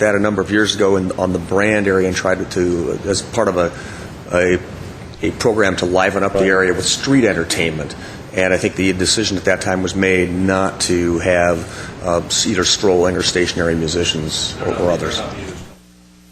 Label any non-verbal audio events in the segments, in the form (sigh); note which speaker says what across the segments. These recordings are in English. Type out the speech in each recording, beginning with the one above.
Speaker 1: that a number of years ago in, on the brand area and tried to, to as part of a, a a program to liven up the area with street entertainment. And I think the decision at that time was made not to have uh, either strolling or stationary musicians or, or others.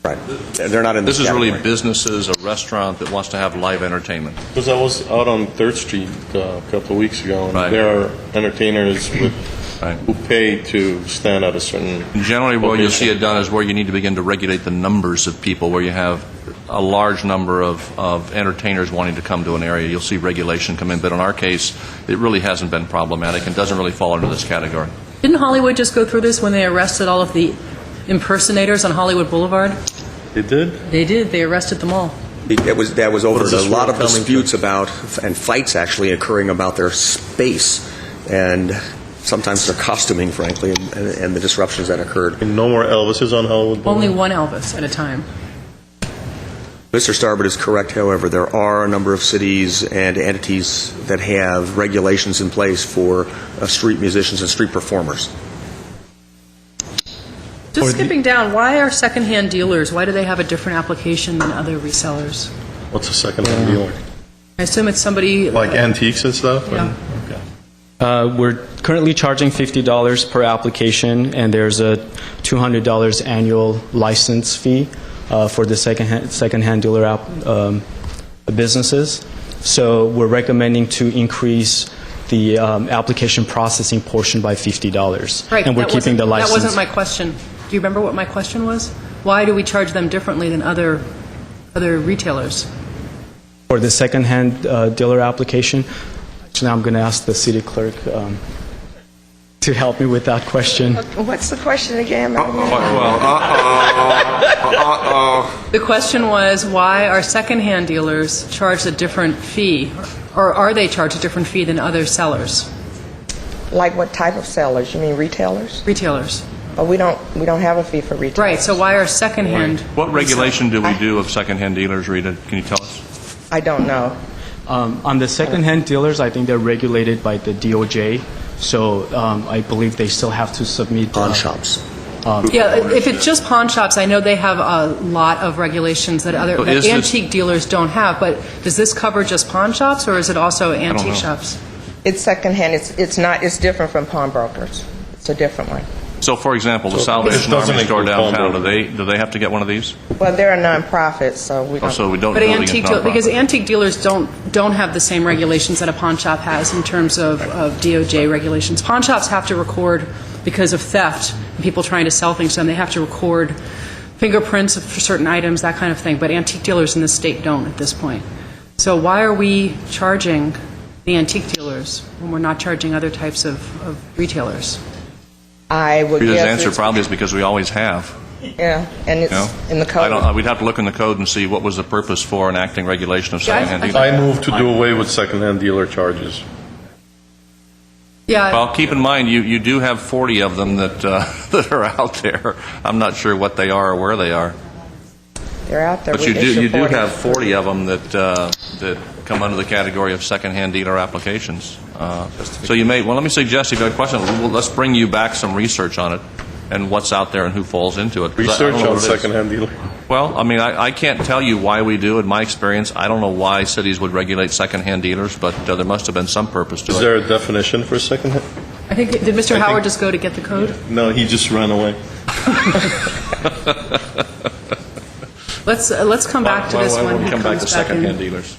Speaker 1: Right. They're not in
Speaker 2: This
Speaker 1: this
Speaker 2: is really
Speaker 1: category.
Speaker 2: businesses, a restaurant that wants to have live entertainment.
Speaker 3: Because I was out on Third Street uh, a couple of weeks ago, and
Speaker 2: Right.
Speaker 3: there are entertainers with,
Speaker 2: Right.
Speaker 3: who pay to stand at a certain.
Speaker 2: Generally, where you'll see
Speaker 3: location.
Speaker 2: it done is where you need to begin to regulate the numbers of people, where you have a large number of, of entertainers wanting to come to an area. You'll see regulation come in, but in our case, it really hasn't been problematic and doesn't really fall into this category.
Speaker 4: Didn't Hollywood just go through this when they arrested all of the impersonators on Hollywood Boulevard?
Speaker 3: They did?
Speaker 4: They did. They arrested them all.
Speaker 1: That was that was over
Speaker 3: What is
Speaker 1: a
Speaker 3: this
Speaker 1: lot
Speaker 3: world
Speaker 1: of
Speaker 3: coming to?
Speaker 1: disputes about and fights actually occurring about their space and sometimes their costuming, frankly, and, and the disruptions that occurred.
Speaker 3: And no more Elvises on Hollywood Boulevard?
Speaker 4: Only one Elvis at a time.
Speaker 1: Mr. Starbird is correct, however. There are a number of cities and entities that have regulations in place for uh, street musicians and street performers.
Speaker 4: Just skipping down, why are secondhand dealers, why do they have a different application than other resellers?
Speaker 3: What's a second-hand dealer?
Speaker 4: I assume it's somebody...
Speaker 3: Like antiques and stuff?
Speaker 4: Yeah.
Speaker 3: Okay.
Speaker 5: Uh, We're currently charging $50 per application, and there's a $200 annual license fee uh, for the secondhand secondhand dealer app- um, businesses. So we're recommending to increase the um, application processing portion by $50.
Speaker 4: Right,
Speaker 5: And we're
Speaker 4: that
Speaker 5: keeping
Speaker 4: wasn't-
Speaker 5: the license.
Speaker 4: That wasn't my question. Do you remember what my question was? Why do we charge them differently than other, other retailers?
Speaker 5: For the secondhand uh, dealer application, actually, I'm going to ask the city clerk um, to help me with that question.
Speaker 6: What's the question again?
Speaker 4: The question was, why are secondhand dealers charged a different fee, or are they charged a different fee than other sellers,
Speaker 6: Like what type of sellers? You mean retailers?
Speaker 4: retailers?
Speaker 6: But we don't, we don't have a fee for retailers.
Speaker 4: Right, so why are secondhand?
Speaker 2: What regulation do we do of secondhand dealers, Rita? Can you tell us?
Speaker 6: I don't know.
Speaker 5: Um, on the secondhand dealers, I think they're regulated by the DOJ, so um, I believe they still have to submit. uh,
Speaker 1: Pawn shops.
Speaker 4: Yeah, if it's just pawn shops, I know they have a lot of regulations that other,
Speaker 2: So
Speaker 4: that
Speaker 2: is this-
Speaker 4: antique dealers don't have, but does this cover just pawn shops, or is it also antique
Speaker 2: know.
Speaker 4: shops?
Speaker 6: It's secondhand, it's, it's not, it's different from pawnbrokers. It's a different one.
Speaker 2: So, for example, the Salvation
Speaker 3: doesn't
Speaker 2: Army store
Speaker 3: include pawn
Speaker 2: downtown, do
Speaker 3: brokers.
Speaker 2: they, do they have to get one of these?
Speaker 6: Well, they're a nonprofit, so we
Speaker 2: Oh,
Speaker 6: don't.
Speaker 2: So we don't
Speaker 4: But
Speaker 2: really
Speaker 4: antique,
Speaker 2: get
Speaker 4: deal- because
Speaker 2: nonprofit.
Speaker 4: antique dealers don't, don't have the same regulations that a pawn shop has in terms of of DOJ regulations. Pawn shops have to record, because of theft, and people trying to sell things to them, they have to record fingerprints for certain items, that kind of thing, but antique dealers in this state don't at this point. So why are we charging the antique dealers when we're not charging other types of of retailers?
Speaker 6: I would
Speaker 2: Rita's
Speaker 6: guess
Speaker 2: answer
Speaker 6: it's-
Speaker 2: probably is because we always have.
Speaker 6: Yeah, and
Speaker 2: No?
Speaker 6: it's in the
Speaker 2: I don't,
Speaker 6: code.
Speaker 2: we'd have to look in the code and see what was the purpose for enacting regulation of
Speaker 4: Yeah, I-
Speaker 2: secondhand
Speaker 4: I-
Speaker 2: dealers.
Speaker 3: I move to do away with second-hand dealer charges.
Speaker 4: Yeah.
Speaker 2: Well, keep in mind, you, you do have 40 of them that, uh, (laughs) that are out there. I'm not sure what they are or where they are.
Speaker 6: They're out there.
Speaker 2: But
Speaker 6: We
Speaker 2: you do,
Speaker 6: issue
Speaker 2: you do
Speaker 6: 40.
Speaker 2: have 40 of them that, uh, that come under the category of secondhand dealer applications. Uh, So you may, well, let me suggest, if you have a question, well, let's bring you back some research on it and what's out there and who falls into it. 'Cause I- I don't
Speaker 3: Research
Speaker 2: know
Speaker 3: on
Speaker 2: what it is.
Speaker 3: second-hand dealer.
Speaker 2: Well, I mean, I, I can't tell you why we do. In my experience, I don't know why cities would regulate secondhand dealers, but uh, there must have been some purpose to
Speaker 3: Is
Speaker 2: it.
Speaker 3: there a definition for second-hand?
Speaker 4: I think, did Mr.
Speaker 3: think-
Speaker 4: Howard just go to get the code?
Speaker 3: No, he just ran away.
Speaker 4: Let's, uh, let's come back to
Speaker 2: Why-
Speaker 4: this
Speaker 2: why
Speaker 4: one.
Speaker 2: won't we
Speaker 4: He
Speaker 2: come back
Speaker 4: comes
Speaker 2: to
Speaker 4: back in.
Speaker 2: secondhand dealers?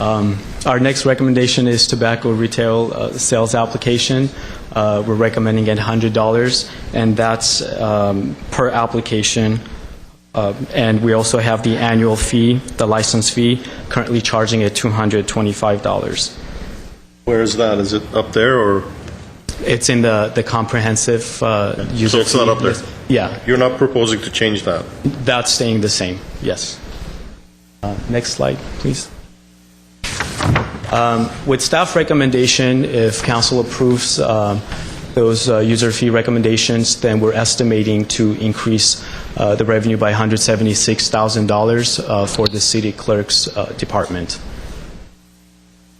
Speaker 5: Um, Our next recommendation is tobacco retail uh, sales application. Uh, We're recommending at $100, and that's um, per application. Uh, And we also have the annual fee, the license fee, currently charging at $225.
Speaker 3: Where is that? Is it up there, or?
Speaker 5: It's in the the comprehensive uh, user
Speaker 3: So it's not
Speaker 5: fee
Speaker 3: up there?
Speaker 5: list. Yeah.
Speaker 3: You're not proposing to change that?
Speaker 5: That's staying the same, yes. Uh, Next slide, please. Um, With staff recommendation, if council approves um, those uh, user fee recommendations, then we're estimating to increase uh, the revenue by $176,000 uh, for the city clerk's uh, department.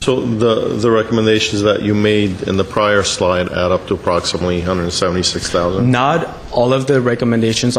Speaker 3: So the, the recommendations that you made in the prior slide add up to approximately 176,000?
Speaker 5: Not all of the recommendations